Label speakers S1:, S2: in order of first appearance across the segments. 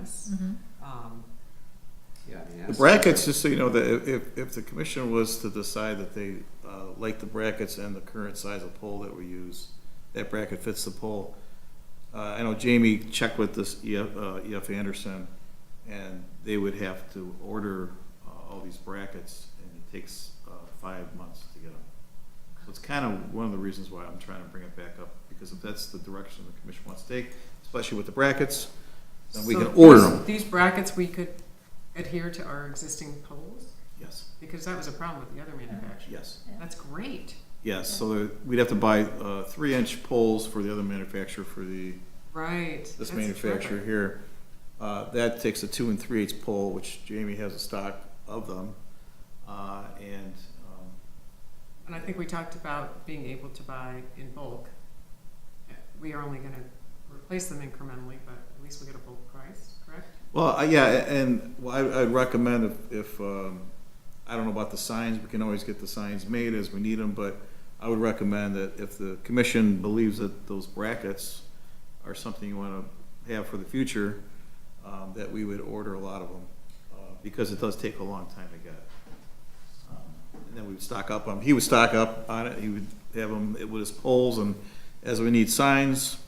S1: this.
S2: Mm-hmm.
S1: Um,
S3: Yeah, I mean,
S4: The
S3: that's-
S4: brackets, just so you know, that if, if the commission was to decide that they uh, like the brackets and the current size of pole that we use, that bracket fits the pole. Uh, I know Jamie checked with this EF, uh, EF Anderson, and they would have to order uh, all these brackets, and it takes uh, five months to get them. So it's kind of one of the reasons why I'm trying to bring it back up, because if that's the direction the commission wants to take, especially with the brackets, then we
S1: so
S4: can order
S1: these-
S4: them.
S1: These brackets, we could adhere to our existing poles,
S4: Yes,
S1: because that was a problem with the other manufacturer.
S4: yes.
S1: That's great,
S4: Yes, so there- we'd have to buy uh, three-inch poles for the other manufacturer for the,
S1: right.
S4: this
S1: that's
S4: manufacturer
S1: terrific.
S4: here. Uh, That takes a two and three-eighths pole, which Jamie has a stock of them. Uh, And um,
S1: And I think we talked about being able to buy in bulk. We are only gonna replace them incrementally, but at least we get a bulk price, correct?
S4: Well, I- yeah, a- and well, I- I'd recommend if, if, um, I don't know about the signs, we can always get the signs made as we need them, but I would recommend that if the commission believes that those brackets are something you want to have for the future, um, that we would order a lot of them, uh, because it does take a long time to get. Um, And then we would stock up on, he would stock up on it, he would have them with his poles, and as we need signs,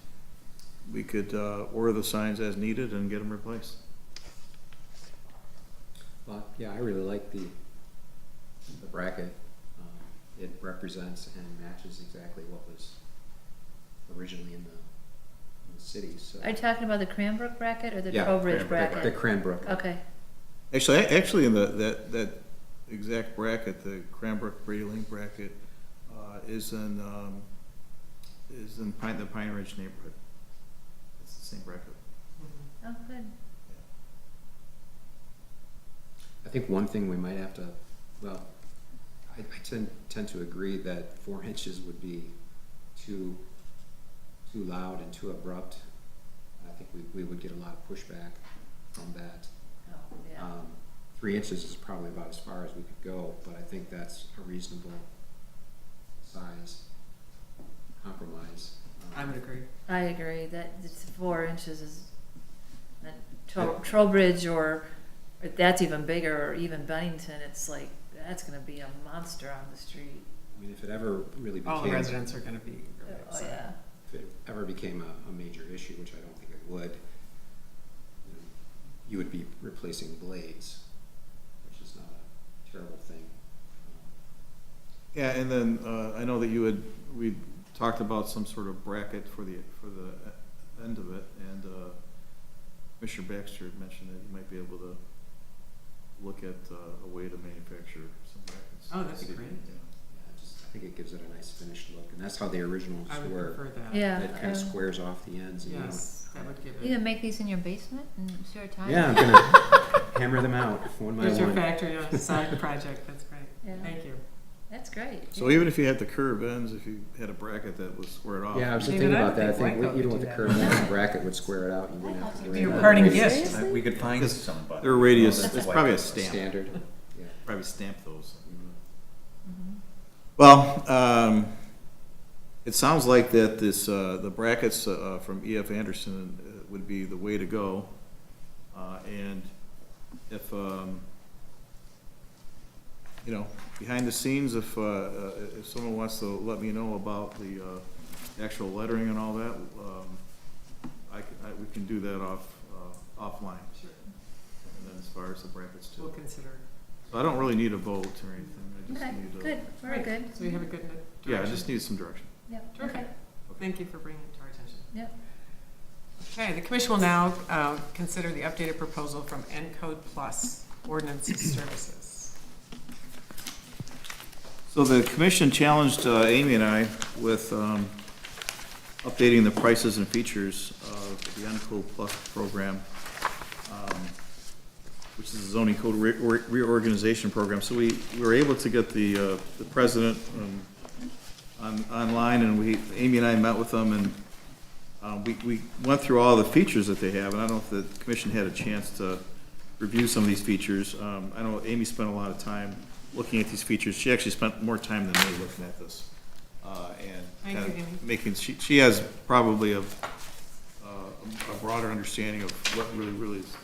S4: we could uh, order the signs as needed and get them replaced.
S3: But, yeah, I really like the, the bracket. Um, It represents and matches exactly what was originally in the, in the city, so.
S2: Are you talking about the Cranbrook bracket or the
S3: Yeah,
S2: Trowbridge
S3: The
S2: bracket?
S3: Cranbrook.
S2: Okay,
S4: Actually, a- actually, in the, that, that exact bracket, the Cranbrook Brady Lane bracket, uh, is in, um, is in Pine, the Pine Ridge neighborhood. It's the same bracket.
S2: oh, good.
S3: I think one thing we might have to, well, I, I tend, tend to agree that four inches would be too, too loud and too abrupt. I think we, we would get a lot of pushback from that.
S2: Oh, yeah.
S3: Um, three inches is probably about as far as we could go, but I think that's a reasonable size compromise. Um,
S1: I would agree.
S2: I agree that it's four inches is, that Tro- Trowbridge or, or that's even bigger, or even Bennington, it's like, that's gonna be a monster on the street.
S3: I mean, if it ever really
S1: All the
S3: became, if
S1: residents are gonna be. really
S2: Oh,
S1: upset.
S2: yeah.
S3: it ever became a, a major issue, which I don't think it would, you know, you would be replacing blades, which is not a terrible thing. Um,
S4: Yeah, and then, uh, I know that you had, we talked about some sort of bracket for the, for the end of it, and, uh, Mr. Baxter had mentioned that you might be able to look at, uh, a way to manufacture some brackets.
S1: Oh, that'd be great.
S4: Yeah.
S3: Yeah, just, I think it gives it a nice finished look, and that's how the originals
S1: I would
S3: were.
S1: prefer that. um,
S2: Yeah.
S3: That kind
S2: uh,
S3: of squares off the ends, and you don't
S1: Yes, that would give
S2: You can
S1: it.
S2: make these in your basement and share time?
S3: Yeah, I'm gonna hammer them out one by
S1: There's your
S3: one.
S1: factory on the side project, that's great.
S2: Yeah.
S1: Thank you.
S2: That's great.
S4: So even if you had the curve ends, if you had a bracket that was squared off.
S3: Yeah, I was just
S1: David,
S3: thinking
S1: I
S3: about
S1: don't
S3: that. I
S1: think
S3: think
S1: Wyco
S3: we- even
S1: would
S3: with
S1: do
S3: the
S1: that.
S3: curve, the bracket would square it out. You wouldn't have to worry
S1: Your
S3: about
S1: parting
S3: it.
S1: gift.
S2: Seriously?
S5: Uh, We could find somebody.
S4: Their radius,
S5: Well,
S4: there's
S5: white
S4: probably a
S5: person.
S4: stamp.
S3: Standard, yeah.
S4: Probably stamp those.
S2: Mhm.
S4: Well, um, it sounds like that this, uh, the brackets, uh, from EF Anderson uh, would be the way to go. Uh, and if, um, you know, behind the scenes, if, uh, uh, if someone wants to let me know about the, uh, actual lettering and all that, um, I can, I, we can do that off, uh, offline.
S1: Sure.
S4: And then as far as the brackets too.
S1: We'll consider.
S4: So I don't really need a vote or anything, I
S2: Okay,
S4: just need a.
S2: good, very
S1: Right,
S2: good. Mm-hmm.
S1: So we have a good direction.
S4: Yeah, I just need some direction.
S2: Yep,
S1: Terrific.
S2: okay,
S1: Thank you for bringing it to our attention.
S2: yep.
S1: Okay, the commission will now uh, consider the updated proposal from Encode Plus Ordinance Services.
S4: So the commission challenged uh, Amy and I with um, updating the prices and features of the Uncool Plus program, um, which is a zoning code re- re- reorganization program. So we, we were able to get the, uh, the president um, on, online, and we, Amy and I met with them, and uh, we, we went through all the features that they have, and I don't know if the commission had a chance to review some of these features. Um, I know Amy spent a lot of time looking at these features. She actually spent more time than me looking at this. uh, And
S1: Thank you,
S4: kind
S1: Amy.
S4: of making, she, she has probably a, uh, a broader understanding of what really, really is